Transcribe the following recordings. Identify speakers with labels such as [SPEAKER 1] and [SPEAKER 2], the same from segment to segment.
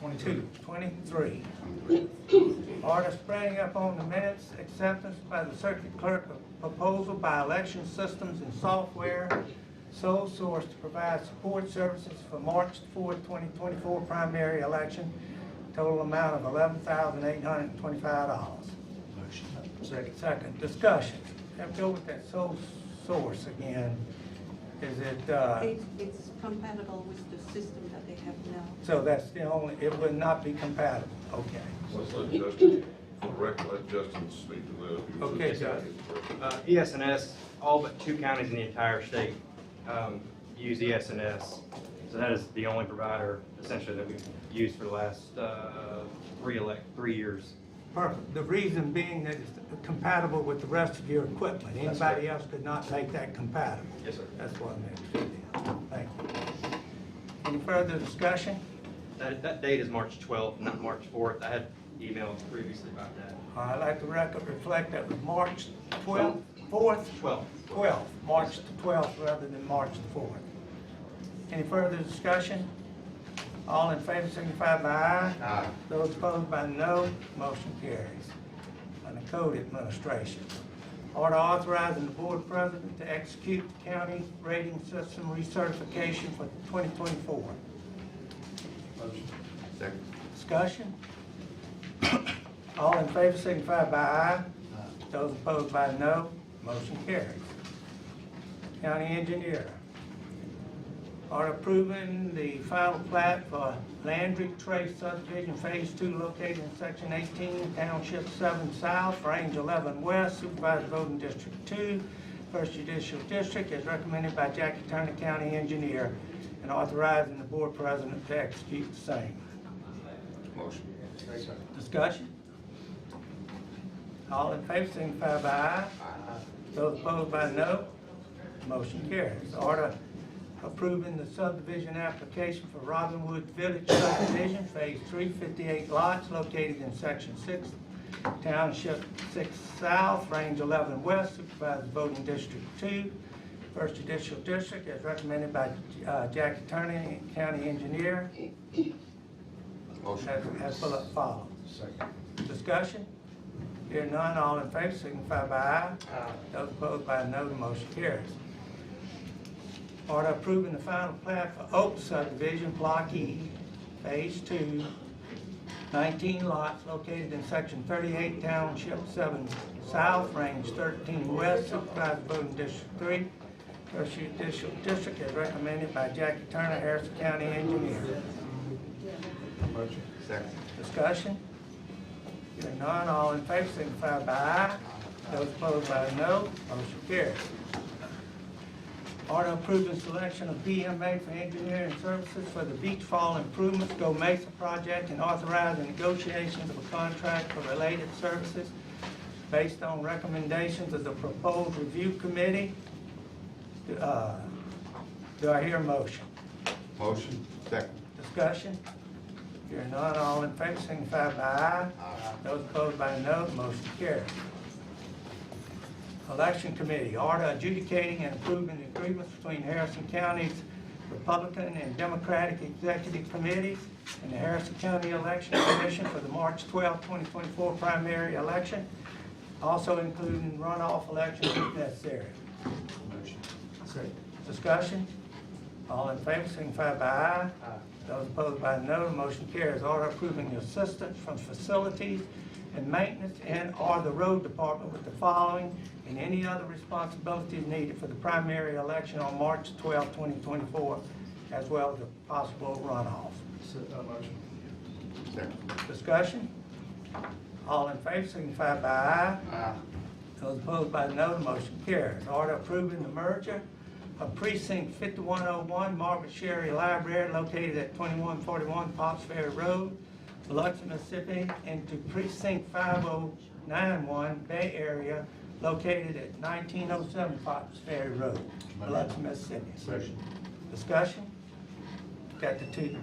[SPEAKER 1] 22, 23. Order spreading up on the minutes acceptance by the circuit clerk of proposal by election systems and software sole source to provide support services for March 4, 2024 primary election, total amount of $11,825.
[SPEAKER 2] Motion.
[SPEAKER 1] Second. Second, discussion. Have to go with that sole source again. Is it, uh,
[SPEAKER 3] It- It's compatible with the system that they have now.
[SPEAKER 1] so that's the only, it would not be compatible, okay.
[SPEAKER 4] Let's let Justin, for record, let Justin speak to that. He was
[SPEAKER 5] Okay,
[SPEAKER 4] just-
[SPEAKER 5] Josh. Uh, ESNS, all but two counties in the entire state um, use ESNS. So that is the only provider essentially that we've used for the last uh, three elect, three years.
[SPEAKER 1] Perfect. The reason being that it's compatible with the rest of your equipment.
[SPEAKER 5] That's right.
[SPEAKER 1] Anybody else could not make that compatible.
[SPEAKER 5] Yes, sir.
[SPEAKER 1] That's what I meant. Thank you. Any further discussion?
[SPEAKER 5] That, that date is March 12th, not March 4th. I had emailed previously about that.
[SPEAKER 1] Uh, I'd like the record reflect that was March 12th, 4th,
[SPEAKER 5] 12th.
[SPEAKER 1] 12th, March the 12th rather than March the 4th. Any further discussion? All in favor signify by aye. Aye. Those opposed by no, motion carries. Under Code Administration, order authorizing the board president to execute county rating system recertification for 2024.
[SPEAKER 2] Second.
[SPEAKER 1] Discussion? All in favor signify by aye. Those opposed by no, motion carries. County engineer, order approving the final plat for Landry Trace subdivision phase two located in section eighteen, township seven south, range eleven west, supervised voting district two, first judicial district, as recommended by Jackie Turner, county engineer, and authorizing the board president to execute the same.
[SPEAKER 2] Motion.
[SPEAKER 1] Discussion? All in favor, signify by aye. Those opposed by no, motion carries. Order approving the subdivision application for Robinwood Village subdivision, phase three, fifty-eight lots located in section six, township six south, range eleven west, supervised voting district two, first judicial district, as recommended by uh, Jackie Turner, county engineer,
[SPEAKER 2] Motion.
[SPEAKER 1] as as follows.
[SPEAKER 2] Second.
[SPEAKER 1] Discussion? Here none, all in favor, signify by aye. Those opposed by no, the motion carries. Order approving the final plat for Oak subdivision, Block E, Phase Two, 19 lots located in Section 38, Township 7 South, Range 13 West, Supervised Voting District 3, First Judicial District, as recommended by Jackie Turner, Harrison County Engineer.
[SPEAKER 2] Motion. Second.
[SPEAKER 1] Discussion? Hearing none, all in favor signify by aye. Those opposed by no, motion carries. Order approving selection of BMA for engineering services for the Beach Fall Improvements Go Mesa project and authorizing negotiations of a contract for related services based on recommendations of the proposed review committee. Uh, Do I hear a motion?
[SPEAKER 2] Motion. Second.
[SPEAKER 1] Discussion? Hearing none, all in favor, signify by aye. Those opposed by no, motion carries. Election Committee, order adjudicating and approving the agreements between Harrison County's Republican and Democratic Executive Committees and the Harrison County Election Commission for the March 12, 2024 primary election, also including runoff elections if necessary.
[SPEAKER 2] Motion.
[SPEAKER 1] Discussion? All in favor, signify by aye.
[SPEAKER 2] Aye.
[SPEAKER 1] Those opposed by no, the motion carries. Order approving the assistance from facilities and maintenance and/or the road department with the following and any other responsibilities needed for the primary election on March 12, 2024, as well as a possible runoff.
[SPEAKER 2] Second.
[SPEAKER 1] Discussion? All in favor, signify by aye.
[SPEAKER 2] Aye.
[SPEAKER 1] Those opposed by no, the motion carries. Order approving the merger of precinct fifty-one oh one Margaret Sherry Library located at twenty-one forty-one Pops Ferry Road, Biloxi, Mississippi, into precinct five oh nine one Bay Area located at nineteen oh seven Pops Ferry Road, Biloxi, Mississippi.
[SPEAKER 2] Motion.
[SPEAKER 1] Discussion? Got the two.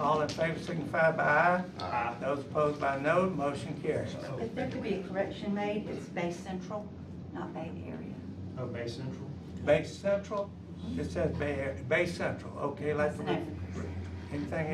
[SPEAKER 1] All in favor signify by aye.
[SPEAKER 2] Aye.
[SPEAKER 1] Those opposed by no, the motion carries.
[SPEAKER 6] If there could be a correction made, it's Bay Central, not Bay Area.
[SPEAKER 7] Oh, Bay Central?
[SPEAKER 1] Bay Central, it says Bay, Bay Central, okay, like,
[SPEAKER 6] That's an acronym.
[SPEAKER 1] anything